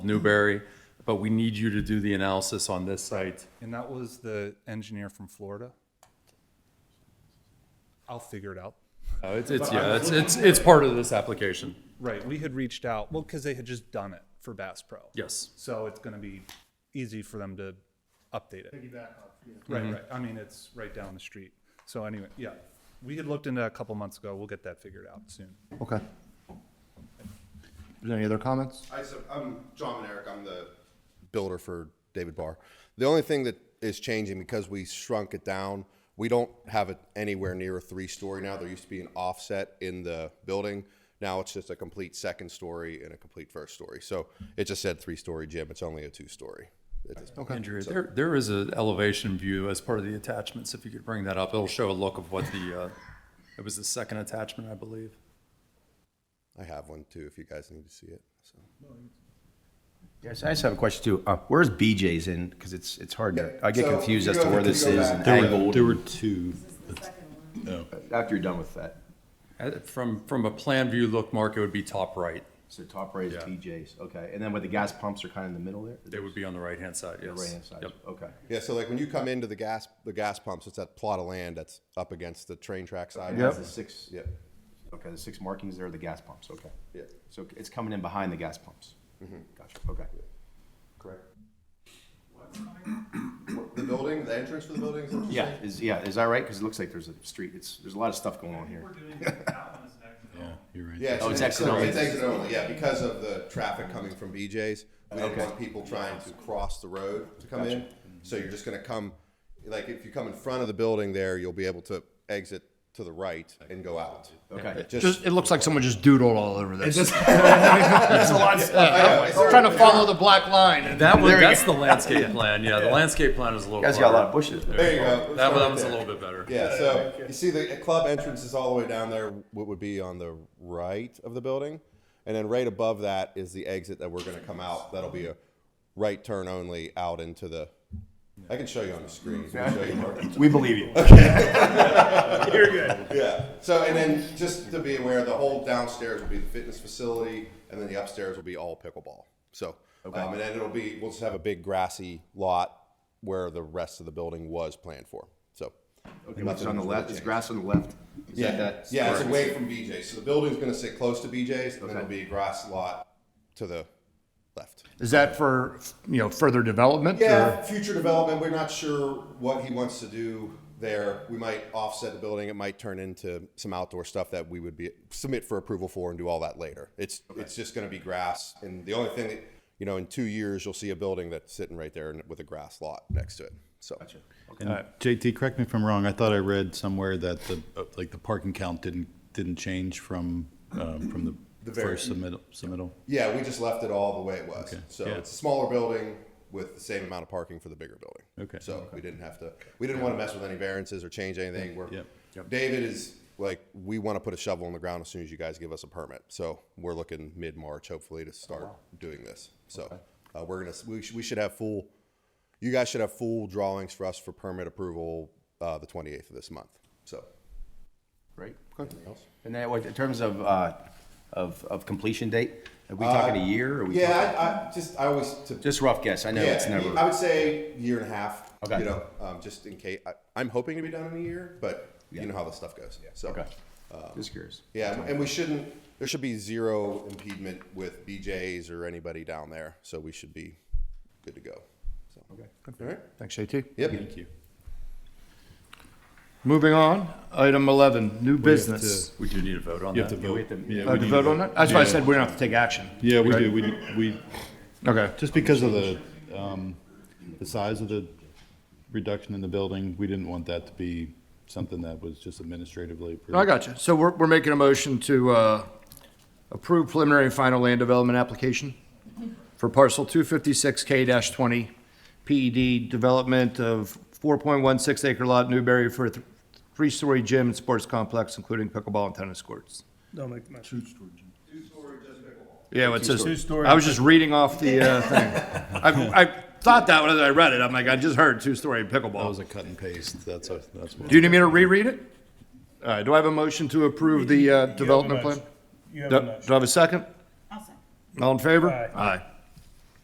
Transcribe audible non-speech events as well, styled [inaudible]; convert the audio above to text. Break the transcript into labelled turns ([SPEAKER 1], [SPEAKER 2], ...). [SPEAKER 1] Newberry, but we need you to do the analysis on this site.
[SPEAKER 2] And that was the engineer from Florida. I'll figure it out.
[SPEAKER 1] Uh, It's, it's, yeah, it's, it's, it's part of this application.
[SPEAKER 2] Right, we had reached out, well, because they had just done it for Bass Pro.
[SPEAKER 1] Yes.
[SPEAKER 2] So it's gonna be easy for them to update it. Right, right, I mean, it's right down the street. So anyway, yeah, we had looked into that a couple months ago, we'll get that figured out soon. [laughs]
[SPEAKER 3] Okay. Is there Any other comments?
[SPEAKER 4] I sub- I'm John and Eric. I'm the builder for David Barr. The only thing that is changing because we shrunk it down, we don't have it anywhere near a three story now. There used to be an offset in the building. Now it's just a complete second story and a complete first story. So it just said three story gym. It's only a two story at this point.
[SPEAKER 1] Andrea, there, there is an elevation view as part of the attachments. If you could bring that up, it'll show a look of what the, uh, it was the second attachment, I believe.
[SPEAKER 4] I have one too if you guys need to see it. So.
[SPEAKER 5] Yes, I just have a question too. Uh, where's BJ's in? Because it's, it's hard to, I get
[SPEAKER 4] So,
[SPEAKER 5] confused
[SPEAKER 4] you
[SPEAKER 5] as
[SPEAKER 4] go-
[SPEAKER 5] to where
[SPEAKER 4] if you
[SPEAKER 5] this
[SPEAKER 4] go
[SPEAKER 5] is
[SPEAKER 4] back-
[SPEAKER 5] and
[SPEAKER 4] There
[SPEAKER 5] angled.
[SPEAKER 6] There were two.
[SPEAKER 5] After you're done with that.
[SPEAKER 1] Uh, From, from a plan view look, Mark, it would be top right.
[SPEAKER 5] So top right is BJ's, okay. And then where the gas pumps are kind of in the middle there?
[SPEAKER 1] They would be on the right-hand side, yes.
[SPEAKER 5] Right-hand side,
[SPEAKER 1] Yep.
[SPEAKER 5] okay.
[SPEAKER 4] Yeah, so like when you come into the gas the gas pumps, it's that plot of land that's up against the train track side.
[SPEAKER 5] That's the six,
[SPEAKER 4] Yeah.
[SPEAKER 5] okay, the six markings there are the gas pumps, okay.
[SPEAKER 4] Yeah.
[SPEAKER 5] So it's coming in behind the gas pumps?
[SPEAKER 3] Mm-hmm.
[SPEAKER 5] Gotcha, okay.
[SPEAKER 4] Correct. The building, the entrance for the building is what you're
[SPEAKER 5] Yeah,
[SPEAKER 4] saying?
[SPEAKER 5] is, yeah, is that right? Because it looks like there's a street, it's, there's a lot of stuff going on here.
[SPEAKER 6] Yeah, you're right.
[SPEAKER 4] Yeah,
[SPEAKER 5] Oh, it's exit
[SPEAKER 4] so
[SPEAKER 5] only.
[SPEAKER 4] It's exit only, yeah, because of the traffic coming from BJ's. We don't want people trying to cross the road to come in. So you're just gonna come, like, if you come in front of the building there, you'll be able to exit to the right and go out.
[SPEAKER 5] Okay.
[SPEAKER 4] Just,
[SPEAKER 3] it looks like someone just doodled all over this.
[SPEAKER 4] Yeah, is there-
[SPEAKER 3] uh, to follow the black line. and-
[SPEAKER 1] That one, that's the
[SPEAKER 6] [laughs]
[SPEAKER 1] landscape plan, yeah, the landscape plan is a little.
[SPEAKER 5] You guys got a lot of
[SPEAKER 1] harder.
[SPEAKER 5] bushes there.
[SPEAKER 4] there you go.
[SPEAKER 1] That one,
[SPEAKER 4] Start
[SPEAKER 1] that
[SPEAKER 4] right
[SPEAKER 1] one's a
[SPEAKER 4] there.
[SPEAKER 1] little bit better.
[SPEAKER 4] Yeah, so you see the club entrance is all the way down there, what would be on the right of the building. And then right above that is the exit that we're gonna come out. That'll be a right turn only out into the, I can show you on the screen. I can show you, Mark.
[SPEAKER 5] We believe you.
[SPEAKER 4] Yeah, so, and then just to be aware, the whole downstairs will be the fitness facility, and then the upstairs will be all pickleball. So, um, and then it'll be, we'll just have a big grassy lot where the rest of the building was planned for, so.
[SPEAKER 5] Okay, what's on the left, is grass on the left? Is that
[SPEAKER 4] Yeah,
[SPEAKER 5] that-
[SPEAKER 4] yeah, it's away from BJ's. So the building's gonna sit close to BJ's, and then it'll be a grass lot to the left.
[SPEAKER 3] Is that for, you know, further development? or-
[SPEAKER 4] Yeah, future development, we're not sure what he wants to do there. We might offset the building, it might turn into some outdoor stuff that we would be, submit for approval for and do all that later. It's, it's just gonna be grass, and the only thing that, you know, in two years, you'll see a building that's sitting right there and- with a grass lot next to it, so.
[SPEAKER 6] And
[SPEAKER 3] Uh,
[SPEAKER 6] JT, correct me if I'm wrong. I thought I read somewhere that the, uh, like, the parking count didn't, didn't change from, um, from the
[SPEAKER 4] very-
[SPEAKER 6] first submittal, submittal.
[SPEAKER 4] Yeah, we just left it all the way it was. So
[SPEAKER 6] yeah.
[SPEAKER 4] it's a smaller building with the same amount of parking for the bigger building.
[SPEAKER 6] Okay.
[SPEAKER 4] So we didn't have to, we didn't want to mess with any variances or change anything. We're,
[SPEAKER 6] Yep. Yep.
[SPEAKER 4] David is like, we want to put a shovel in the ground as soon as you guys give us a permit. So we're looking mid March, hopefully, to
[SPEAKER 6] Oh,
[SPEAKER 4] start doing this. So uh, we're gonna, we, sh- we should have full, you guys should have full drawings for us for permit approval uh, the 28th of this month. So.
[SPEAKER 5] Right.
[SPEAKER 4] Anything else?
[SPEAKER 5] And then, what- in terms of, uh, of, of completion date, are we talking a year or are we? talking-
[SPEAKER 4] Uh, Yeah, I, I just, I always, to
[SPEAKER 5] Just rough guess, I know it's
[SPEAKER 4] Yeah, I
[SPEAKER 5] never,
[SPEAKER 4] would say year and a half.
[SPEAKER 5] Okay.
[SPEAKER 4] You know, um, just in case. I, I'm hoping to be done in a year, but you know how this stuff goes. Yeah. So.
[SPEAKER 5] okay, just curious.
[SPEAKER 4] Yeah, and we shouldn't. There should be zero impediment with BJ's or anybody down there, so we should be good to go. So. Okay. All right.
[SPEAKER 3] Thanks, JT.
[SPEAKER 4] Yep.
[SPEAKER 6] Thank you.
[SPEAKER 3] Moving on, item 11, new
[SPEAKER 6] We have
[SPEAKER 3] business.
[SPEAKER 6] to-
[SPEAKER 1] We do need a vote on
[SPEAKER 6] You have to
[SPEAKER 1] that.
[SPEAKER 6] vote.
[SPEAKER 5] have to-
[SPEAKER 6] Yeah,
[SPEAKER 3] Uh,
[SPEAKER 6] we
[SPEAKER 3] to
[SPEAKER 6] need
[SPEAKER 3] vote
[SPEAKER 6] to-
[SPEAKER 3] on that? That's why I
[SPEAKER 6] Yeah.
[SPEAKER 3] said we don't have to take action.
[SPEAKER 6] Yeah, we
[SPEAKER 3] right?
[SPEAKER 6] do. We, we,
[SPEAKER 3] Okay.
[SPEAKER 6] just because of the, um, the size of the reduction in the building, we didn't want that to be something that was just administratively.
[SPEAKER 3] No, I got you. So we're, we're making a motion to uh, approve preliminary and final land development application for parcel 256K-20, PED E development of 4.16 acre lot Newberry for a th- three-story gym and sports complex, including pickleball and tennis courts.
[SPEAKER 7] Don't make the motion.
[SPEAKER 3] Yeah, well, it says,
[SPEAKER 7] Two-story.
[SPEAKER 3] I was just reading off the
[SPEAKER 7] [laughs]
[SPEAKER 3] uh, thing. I, I thought that when I read it. I'm like, I just heard two-story
[SPEAKER 6] That
[SPEAKER 3] pickleball.
[SPEAKER 6] was a cut and paste. That's, a- that's what.
[SPEAKER 3] Do you need me to reread it? All right, do I have a motion to approve the uh,
[SPEAKER 7] You have a
[SPEAKER 3] development plan?
[SPEAKER 7] motion. You have
[SPEAKER 3] Do
[SPEAKER 7] a
[SPEAKER 3] do
[SPEAKER 7] motion.
[SPEAKER 3] I have a second?
[SPEAKER 8] Awesome.
[SPEAKER 3] All in favor?
[SPEAKER 7] Aye.
[SPEAKER 3] Aye.